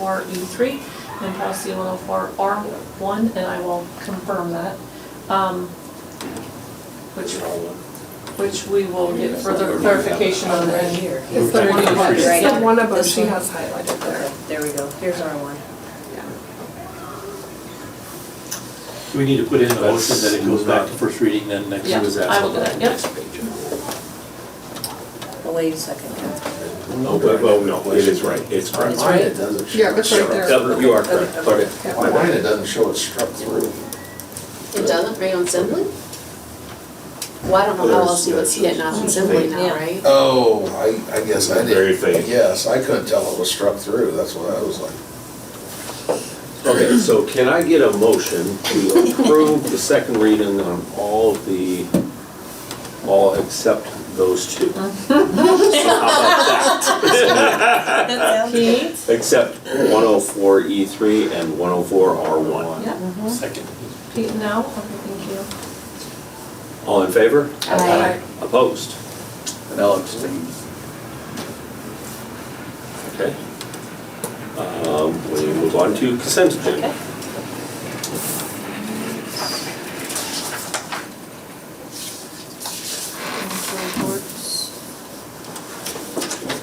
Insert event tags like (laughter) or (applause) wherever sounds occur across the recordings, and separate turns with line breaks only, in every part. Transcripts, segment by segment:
for E3 and policy 104R1, and I will confirm that. um, Which, which we will get further clarification on
Right
then.
here.
It's the one above, it's the one above she has highlighted there.
There we go, here's our one.
Do we need to put in the motion that it goes back to first reading then next?
Yeah,
was
I will do that, yep.
Well, Wait a second. Kathy.
Oh, but, well, no, it is right, it's correct.
It's right.
Yeah, it's right there.
You are correct, okay.
My mind, it doesn't show it struck through.
It doesn't bring on Assembly? Well, I don't know how else you would see it not on Assembly now,
Yeah.
right?
Oh, I, I guess I didn't.
Very faint.
Yes, I couldn't tell it was struck through, that's what I was like.
Okay, so can I get a motion to approve the second reading on all the, all except those two? How about
That
Pete?
that? Except 104E3 E and 104R1.
Yep,
Mm-hmm. Second.
Pete now, okay, thank
All in favor?
Aye.
Opposed? And I'll abstain. Okay. Um, We move on to consent agenda.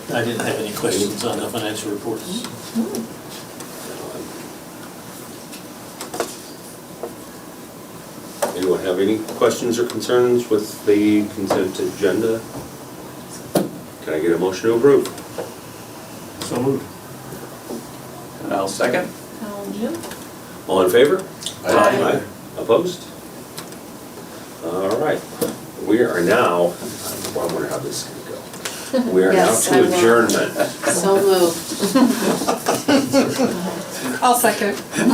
I didn't have any questions on the financial reports.
Anyone have any questions or concerns with the consent agenda? Can I get a motion to approve?
So moved.
And I'll second.
you. Now, Jim? (laughs)
All in favor?
Aye.
Opposed? All right, we are now, I wonder how this is gonna go. We are now
Yes, I
to
will.
adjournment.
So moved.
I'll second.
No.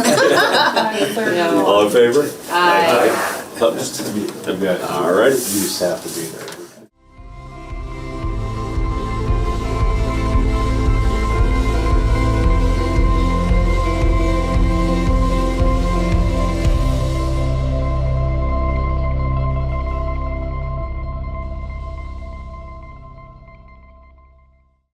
All in favor?
Aye.
Opposed? All
You
right.
just have to be there.